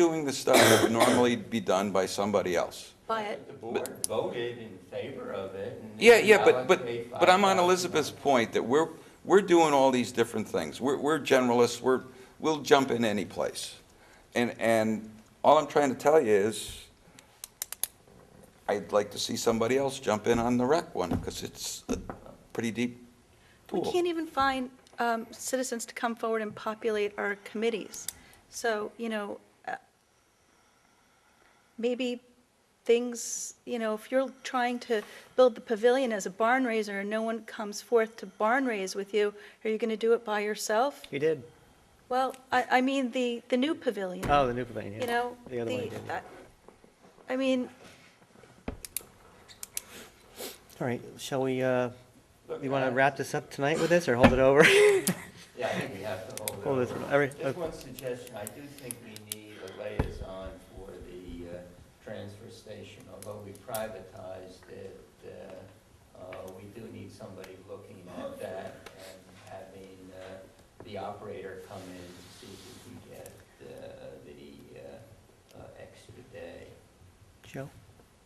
doing the stuff that would normally be done by somebody else. But The board voted in favor of it and. Yeah, yeah, now but, it's paid but, but I'm on $5,000. Elizabeth's point that we're, we're doing all these different things. We're, we're generalists, we're, we'll jump in any place. And, and all I'm trying to tell you is, I'd like to see somebody else jump in on the rec one, because it's a pretty deep we pool. can't even find um, citizens to come forward and populate our committees. So, you know, uh, maybe things, you know, if you're trying to build the pavilion as a barn raiser and no one comes forth to barn raise with you, are you going to do it by yourself? You did. Well, I, I mean, the, the new pavilion. Oh, the new pavilion, yeah. You know, The other one I the, did. I- I mean, All right, shall we, uh, Look, you want I- to wrap this up tonight with this or hold it over? Yeah, I think we have to hold it. Hold this over. one. Every- Just one suggestion, I do think we need a liaison for the uh, transfer station, although we privatized it, uh, uh, we do need somebody looking at that and having uh, the operator come in to see if we can get uh, the uh, uh, extra day. Joe,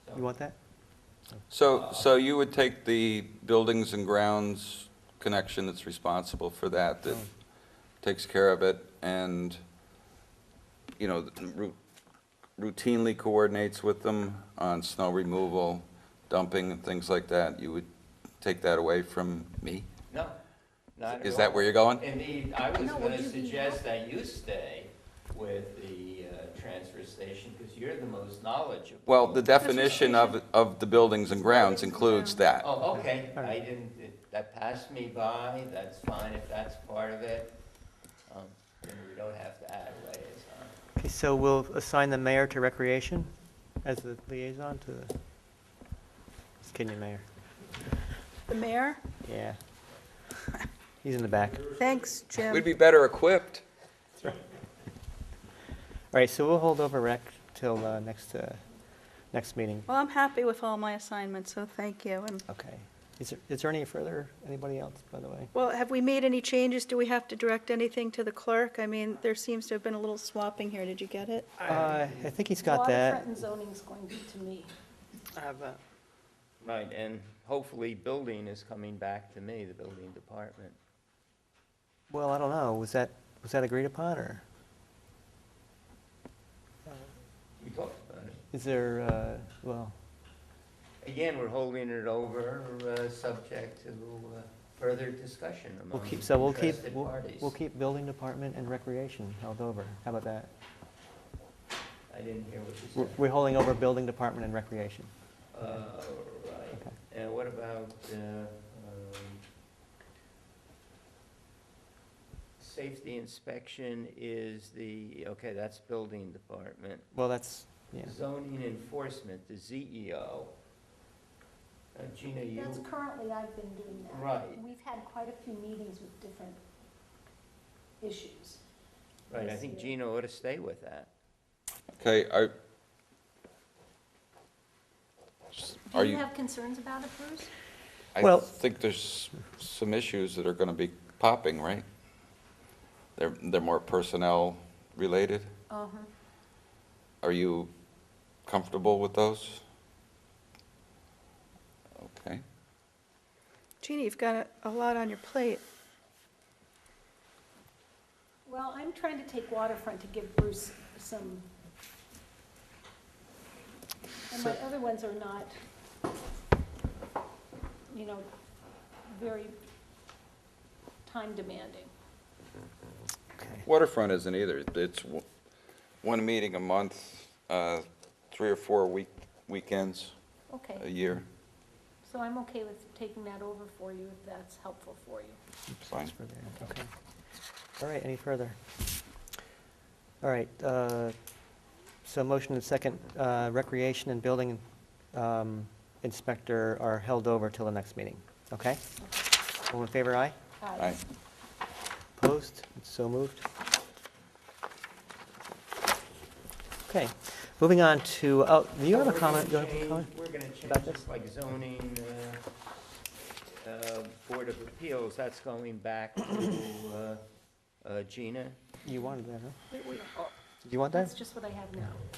So- you want that? So, so you would take the buildings and grounds connection that's responsible for that, Oh. that takes care of it, and, you know, ru- routinely coordinates with them on snow removal, dumping and things like that, you would take that away from me? No, not at Is that all. where you're going? Indeed, I was No, would gonna you be suggest that you stay with the uh, transfer station, because you're the most knowledgeable. Well, the definition of, of the buildings and grounds includes that. Oh, okay, All I right. didn't, it- that passed me by, that's fine if that's part of it. Um, Then we don't have to add a liaison. Okay, so we'll assign the mayor to recreation as the liaison to the, just kidding, mayor. the mayor, Yeah. He's in the back. All thanks, Jim. We'd be better equipped. right, so we'll hold over rec till, uh, next, uh, next meeting. Well, I'm happy with all my assignments, so thank you. And, Okay. Is there, is there any further, anybody else, by the way? well, have we made any changes? Do we have to direct anything to the clerk? I mean, there seems to have been a little swapping here. Did you get it? Uh, I think he's got that. Waterfront and zoning's going to be to me. Right, and hopefully building is coming back to me, the building department. Well, I don't know, was that, was that agreed upon, or We talked about it. is there, uh, well, Again, we're holding it over, uh, subject to uh, further discussion we'll among keep, so we'll keep, interested we'll parties. we'll keep building department and recreation held over. How about that? I didn't hear what you We're- said. We're holding over building department and recreation. Uh, Okay. Right, and what about uh, um, safety inspection is the, okay, that's building department. Well, that's, yeah, Zoning enforcement, the ZEO. Uh, Gina, you, That's currently, I've been doing that. Right. We've had quite a few meetings with different issues. right, I think Gina ought to stay with that. Okay, are, are Do you? you have concerns about it, Bruce? I Well- think there's some issues that are going to be popping, right? They're, they're more personnel related. Uh-huh. Are you comfortable with those? Okay. Jeannie, you've got a- a lot on your plate. Well, I'm trying to take waterfront to give Bruce some. And my other ones are not, you know, very time demanding. okay. Waterfront isn't either. It's w- one meeting a month, uh, three or four week, weekends a Okay, year. so I'm okay with taking that over for you if that's helpful for you. Fine. For there, okay. All right, any further? All right, uh, so motion and second, uh, recreation and building um, inspector are held over till the next meeting, okay? All in favor, aye? Uh, Aye. Opposed? So moved. Okay, moving on to, oh, do you have a We're gonna comment? You have a change- comment? We're gonna about change, this? this like zoning, uh, uh, Board of Appeals, that's going back to uh, uh, Gina. You wanted that, huh? We- we- you want that? That's just what I have now.